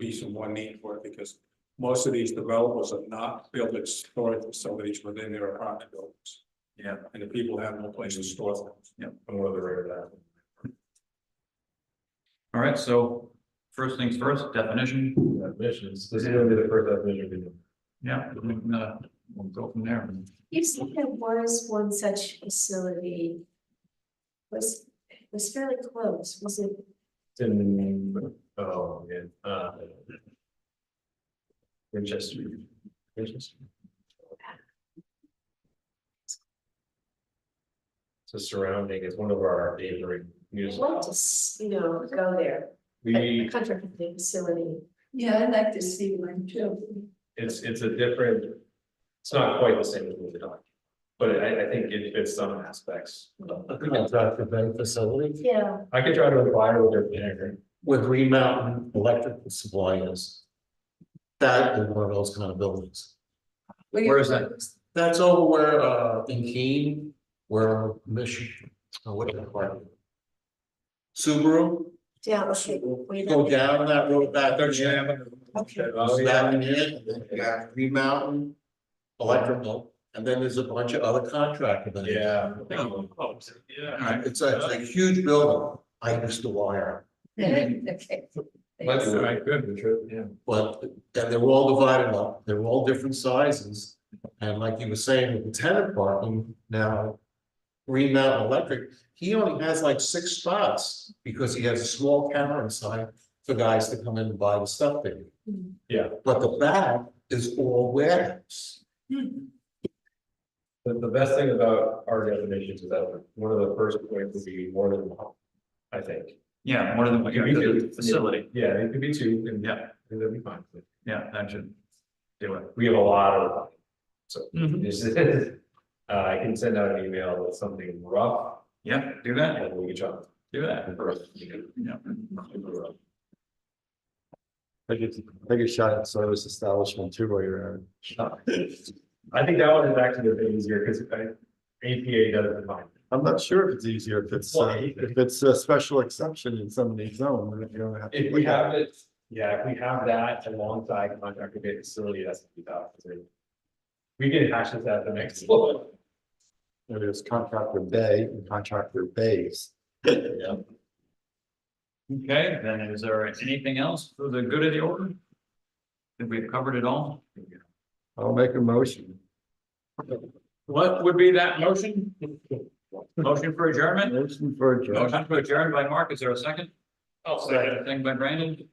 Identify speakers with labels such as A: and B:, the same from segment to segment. A: reason why need for it, because most of these developers are not building storage facilities within their apartment buildings.
B: Yeah.
A: And the people have no place to store things.
B: I'm on the right of that. All right, so first things first, definition.
C: Definitions, this is gonna be the first definition we do.
B: Yeah, we can, uh, we'll go from there.
D: You said there was one such facility. Was, was fairly close, was it,
C: It's in, oh, yeah, uh. Winchester. Winchester. So surrounding is one of our neighboring
D: I'd like
C: municipal.
D: to, s- you know, go there, a- a
C: We,
D: contracting facility.
E: Yeah, I'd like to see one too.
C: it's, it's a different, it's not quite the same as moving on. But I, I think it fits some aspects.
F: contract event facility
D: Yeah,
C: I could try to inquire with their manager.
F: with Green Mountain Electric suppliers. That is one of those kind of buildings. Where is that? That's over where, uh, in Keene, where Michigan, uh, what is it called? Subaru,
D: yeah, okay. wait,
F: go down that road back there,
A: Thirteen
F: yeah.
A: Avenue.
D: Okay.
C: Oh,
F: That in it, and then you got Green Mountain Electrical, and then there's a bunch of other contractor. buildings.
C: Yeah.
B: All
C: Oh,
A: Yeah.
B: right,
F: It's a, it's a huge building. I used to wire.
E: Okay.
C: That's all right, good, the trip, yeah.
F: But, and they're all divided up, they're all different sizes, and like you were saying, with the tenant parking now. Green Mountain Electric, he only has like six spots, because he has a small counter inside for guys to come in and buy the stuff they need.
D: Mhm.
C: Yeah.
F: But the back is all warehouse.
C: The, the best thing about our definitions is that one of the first points would be more than one, I think.
B: yeah, more than,
C: Yeah, we
B: the
C: could-
B: facility,
C: Yeah, it could be two, and yeah,
B: yeah,
C: that'd be fine.
B: yeah, that should do it.
C: We have a lot of,
B: Mhm.
C: this is, uh, I can send out an email with something rough,
B: Yeah, do that,
C: and we can jump.
B: do that, yeah.
C: Take a shot at service establishment too while you're at it. I think that one is actually a bit easier, because APA doesn't define. it.
G: I'm not sure if it's easier, if it's, uh,
C: Why?
G: if it's a special exception in somebody's zone, then you don't have. to
C: If we have it, yeah, if we have that alongside contractor bay facility, that's what we thought. We can hash this out the next. one.
G: There's contractor bay and contractor bays.
B: Okay, then is there anything else for the good of the order? Think we've covered it all?
G: I'll make a motion.
B: What would be that motion? Motion for adjournment?
G: Motion for adjournment.
B: Motion for adjourned by Mark, is there a second? Oh, second. Second by Brandon,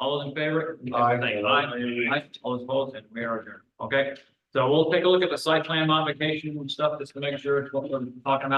B: all those in favor? Aye. Aye, all those opposed, and we are adjourned, okay? So we'll take a look at the site plan modification and stuff, just to make sure it's what we're talking about.